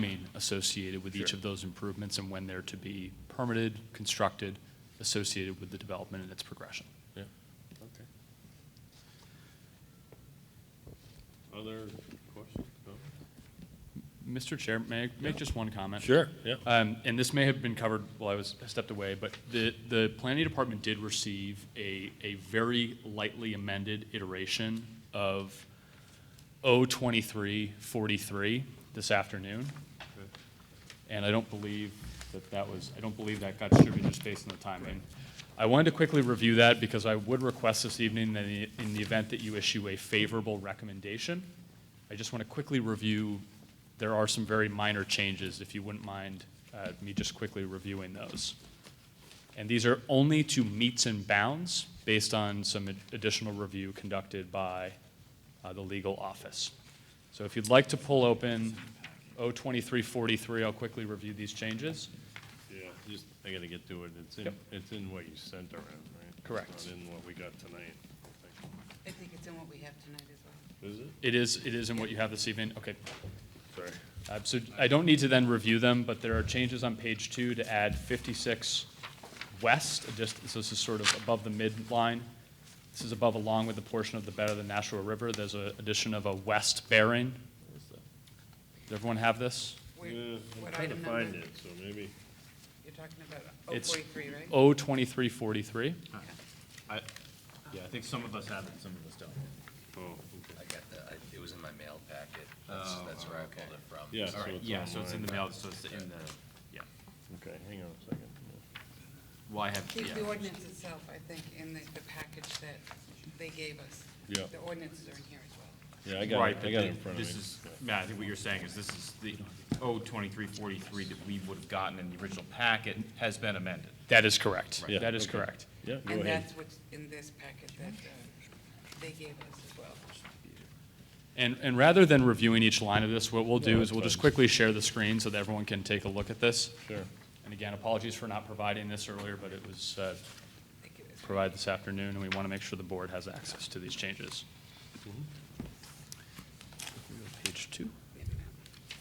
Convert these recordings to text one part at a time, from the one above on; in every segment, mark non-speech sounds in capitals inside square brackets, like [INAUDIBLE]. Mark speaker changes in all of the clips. Speaker 1: timing associated with each
Speaker 2: Sure.
Speaker 1: of those improvements and when they're to be permitted, constructed, associated with the development and its progression.
Speaker 2: Yeah, okay. Other questions? No?
Speaker 1: Mr. Chair, may I make just one comment?
Speaker 2: Sure, yeah.
Speaker 1: Um, and this may have been covered while I was I stepped away, but the, the planning department did receive a, a very lightly amended iteration of O twenty-three forty-three this afternoon. And I don't believe that that was, I don't believe that got distributed just based on the timing. I wanted to quickly review that because I would request this evening that i- in the event that you issue a favorable recommendation, I just want to quickly review, there are some very minor changes, if you wouldn't mind uh, me just quickly reviewing those. And these are only to meets and bounds based on some ad- additional review conducted by uh, the legal office. So if you'd like to pull open O twenty-three forty-three, I'll quickly review these changes.
Speaker 2: Yeah, just, I gotta get to it. It's in,
Speaker 1: Yep.
Speaker 2: it's in what you sent around, right? It's
Speaker 1: Correct.
Speaker 2: Not in what we got tonight. I
Speaker 3: I think it's in what we have tonight as well.
Speaker 2: think. Is it?
Speaker 1: It is, it is in what you have this evening. Okay.
Speaker 2: Sorry.
Speaker 1: Uh, So I don't need to then review them, but there are changes on page two to add 56 west, a dist- so this is sort of above the midline. This is above along with the portion of the bed of the Nashua River. There's an addition of a west bearing. Does everyone have this?
Speaker 3: Where-
Speaker 2: Yeah, I'm
Speaker 3: What
Speaker 2: trying to
Speaker 3: item
Speaker 2: find
Speaker 3: number?
Speaker 2: it, so maybe,
Speaker 3: You're talking about
Speaker 1: It's
Speaker 3: 043, right?
Speaker 1: O 2343.
Speaker 2: oh,
Speaker 4: I, yeah, I think some of us have it, some of us don't.
Speaker 2: oh, okay.
Speaker 5: I got the, I- it was in my mail packet. That's,
Speaker 4: Oh,
Speaker 5: that's where I
Speaker 4: okay.
Speaker 5: pulled it from.
Speaker 2: Yeah, so
Speaker 5: Sorry.
Speaker 2: it's
Speaker 4: Yeah, so it's in the
Speaker 2: online.
Speaker 4: mail, so it's in the, yeah.
Speaker 2: Okay, hang on a second.
Speaker 4: Well, I have,
Speaker 3: The- The
Speaker 4: yeah.
Speaker 3: ordinance itself, I think, in the the package that they gave us.
Speaker 2: Yeah.
Speaker 3: The ordinances are in here as well.
Speaker 2: Yeah, I got it,
Speaker 4: Right,
Speaker 2: I
Speaker 4: but
Speaker 2: got it
Speaker 4: the-
Speaker 2: in front of me.
Speaker 4: this is, Matt, I think what you're saying is this is the O twenty-three forty-three that we would have gotten in the original packet has been amended.
Speaker 1: That is correct.
Speaker 2: Yeah,
Speaker 1: That is
Speaker 2: okay.
Speaker 1: correct.
Speaker 2: Yeah, go
Speaker 3: And
Speaker 2: ahead.
Speaker 3: that's what's in this packet that uh, they gave us as well.
Speaker 1: And, and rather than reviewing each line of this, what we'll
Speaker 2: Yeah,
Speaker 1: do is
Speaker 2: that's
Speaker 1: we'll just
Speaker 2: fine.
Speaker 1: quickly share the screen so that everyone can take a look at this.
Speaker 2: Sure.
Speaker 1: And again, apologies for not providing this earlier, but it was uh,
Speaker 3: They gave us-
Speaker 1: provide this afternoon, and we want to make sure the board has access to these changes. Page two.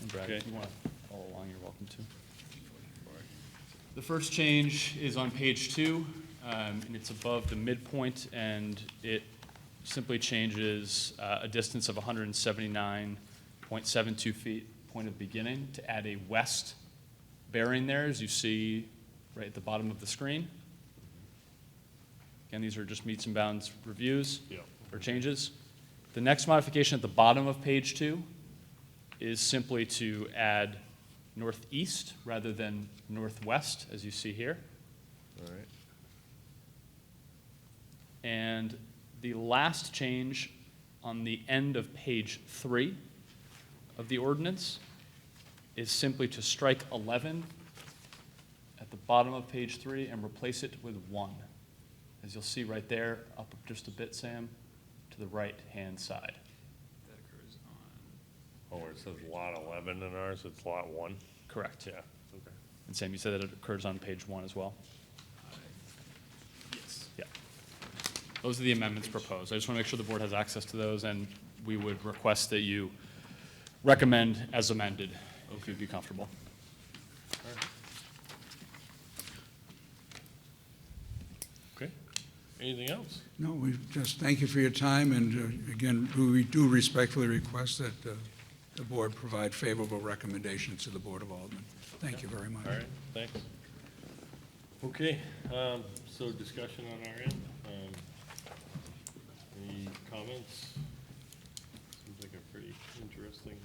Speaker 1: And Brad, if
Speaker 2: Okay.
Speaker 1: you want to follow along, you're welcome to. The first change is on page two, um, and it's above the midpoint, and it simply changes uh, a distance of 179.72 feet, point of beginning, to add a west bearing there, as you see right at the bottom of the screen. Again, these are just meets and bounds reviews
Speaker 2: Yeah.
Speaker 1: or changes. The next modification at the bottom of page two is simply to add northeast rather than northwest, as you see here.
Speaker 2: All right.
Speaker 1: And the last change on the end of page three of the ordinance is simply to strike 11 at the bottom of page three and replace it with one. As you'll see right there, up just a bit, Sam, to the right-hand side.
Speaker 2: Oh, where it says lot eleven in ours, it's lot one?
Speaker 1: Correct.
Speaker 2: Yeah, okay.
Speaker 1: And Sam, you said that it occurs on page one as well?
Speaker 4: Yes.
Speaker 1: Yeah. Those are the amendments proposed. I just want to make sure the board has access to those, and we would request that you recommend as amended, if you'd be comfortable.
Speaker 2: Okay. Anything else?
Speaker 6: No, we just thank you for your time, and uh, again, we do respectfully request that uh, the board provide favorable recommendations to the Board of Aldermen. Thank you very much.
Speaker 2: All right, thanks. Okay, um, so discussion on our end. Um, Any comments? Seems like a pretty interesting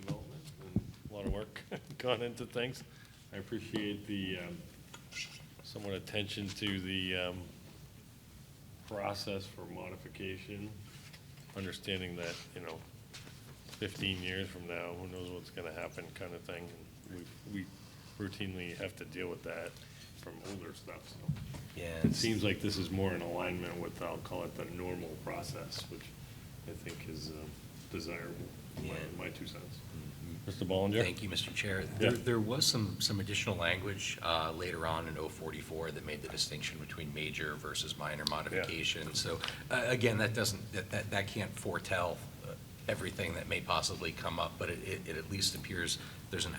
Speaker 2: development and a lot of work [LAUGHS] gone into things. I appreciate the um, somewhat attention to the um, process for modification, understanding that, you know, 15 years from now, who knows what's going to happen kind of thing. We we routinely have to deal with that from older stuff, so.
Speaker 5: Yeah.
Speaker 2: It seems like this is more in alignment with, I'll call it the normal process, which I think is um, desirable, my-
Speaker 5: Yeah.
Speaker 2: my two cents. Mr. Ballinger?
Speaker 5: Thank you, Mr. Chair.
Speaker 2: Yeah.
Speaker 5: There, there was some, some additional language uh, later on in 044 that made the distinction between major versus minor modification. So uh, again, that doesn't, that, that, that can't foretell uh, everything that may possibly come up, but it, it it at least appears there's an